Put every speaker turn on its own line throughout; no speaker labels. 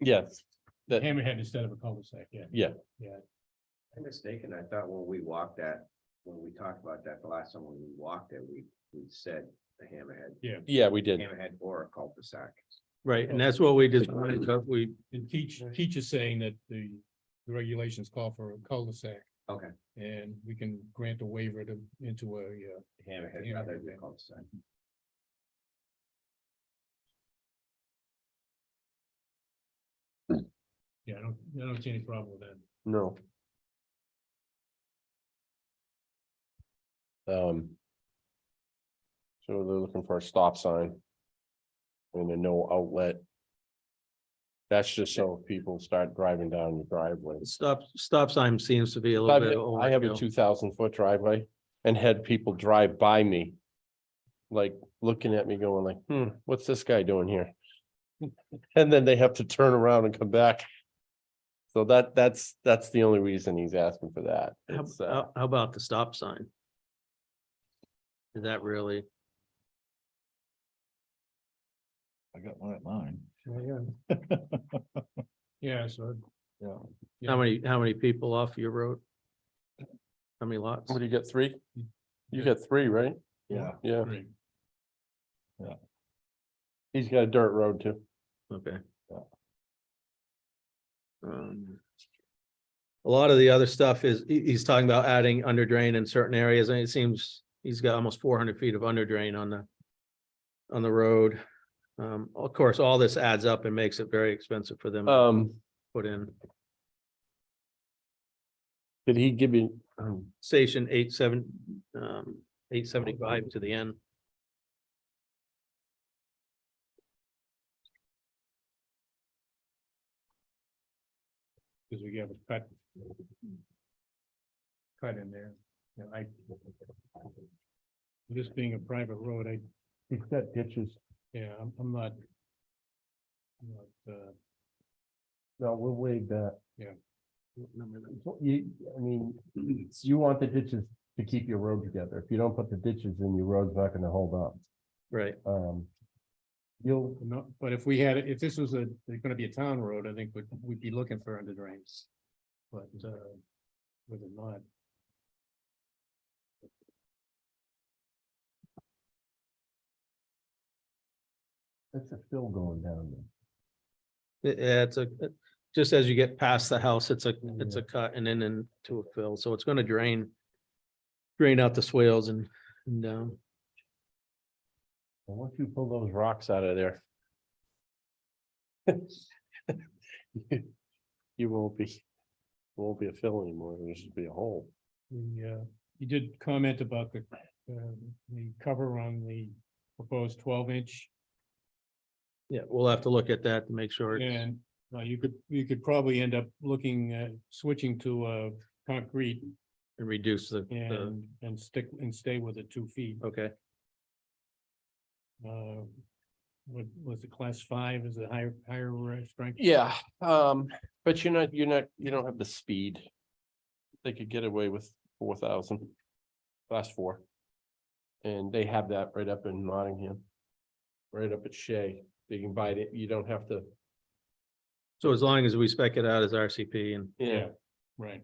Yes, that-
Oh, Hammerhead instead of a cul-de-sac, yeah.
I'm mistaken, I thought when we walked that, when we talked about that the last time when we walked it, we, we said the hammerhead.
yeah, we did.
Hammerhead or a cul-de-sac.
Right, and that's what we just, wanted to- we,
Oh. And teach, teach is saying that the the regulations call for a cul-de-sac.
Okay.
And we can grant a waiver to, into a, uh,
Hammerhead
Yeah.
rather than cul-de-sac.
yeah, I don't, I don't see any problem with that.
No. Um. So they're looking for a stop sign. And a no outlet. That's just so people start driving down the driveway.
stop, stop sign seems to be a little bit.
I have a
overkill.
two thousand foot driveway and had people drive by me. Like looking at me going like, hmm, what's this guy doing here? And then they have to turn around and come back. So that, that's, that's the only reason he's asking for that.
How,
It's, uh,
how- how about the stop sign? Is that really,
I got one at mine.
Yeah. Yeah, so Yeah.
how many, how many people off your road? How many lots?
What do you get, three? You get three, right?
Yeah,
Yeah,
Great.
he's got a dirt road too.
Okay.
Yeah.
Um, A lot of the other stuff is, he- he's talking about adding under drain in certain areas, and it seems he's got almost four hundred feet of under drain on the. On the road. Um, of course, all this adds up and makes it very expensive for them to
Um,
put in.
did he give you, um,
Station eight seven, um, eight seventy-five to the end.
Cause we have a cut. Cut in there, and I. This being a private road, I,
he's got ditches.
yeah, I'm, I'm not. I'm Not, uh,
No, we'll waive that.
What number that-
Well, You, I mean, it's- you want the ditches to keep your road together. If you don't put the ditches in, your road's not gonna hold up.
Right,
Um. You'll,
no, but if we had, if this was a, gonna be a town road, I think we'd, we'd be looking for under drains. But, uh, whether or not,
that's a fill going down there.
It- yeah, it's a, it- just as you get past the house, it's a, it's a cut and then into a fill, so it's gonna drain. Drain out the swales and, and down.
And once you pull those rocks out of there. You won't be, won't be a fill anymore. It'll just be a hole.
the, uh, you did comment about the, um, the cover on the proposed twelve inch.
Yeah, we'll have to look at that to make sure. it's-
And, uh, you could, you could probably end up looking, uh, switching to, uh, concrete
And reduce the, the,
and, and stick, and stay with the two feet.
okay,
Uh, what, was it class five is a higher, higher uh, strength?
Yeah, um, but you're not, you're not, you don't have the speed. They could get away with four thousand, class four. And they have that right up in Nottingham. Right up at Shea, they can buy it, you don't have to.
so as long as we spec it out as RCP and,
Yeah, right.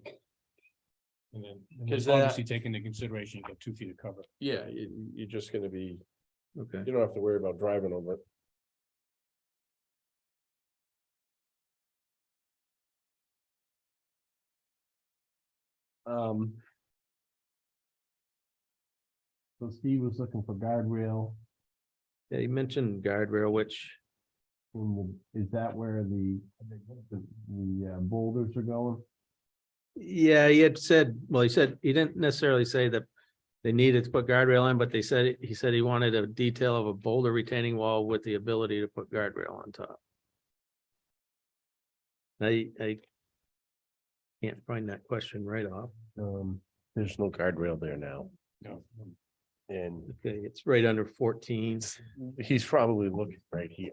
And then, and
Because
then obviously take into consideration, you got two feet of cover.
Yeah, you, you're just gonna be,
okay,
you don't have to worry about driving over it. Um. So Steve was looking for guardrail
yeah, you mentioned guardrail, which,
in the, is that where the, the, the uh, boulders are going?
yeah, he had said, well, he said, he didn't necessarily say that. They needed to put guardrail in, but they said, he said he wanted a detail of a boulder retaining wall with the ability to put guardrail on top. I, I. Can't find that question right off,
Um, there's no guardrail there now,
No.
and
okay, it's right under fourteen,
he's probably looking right here.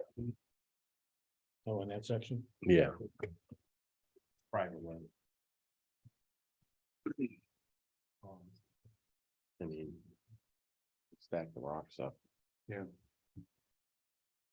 Oh, in that section?
Yeah. Private one. I mean. Stack the rocks up.
Yeah.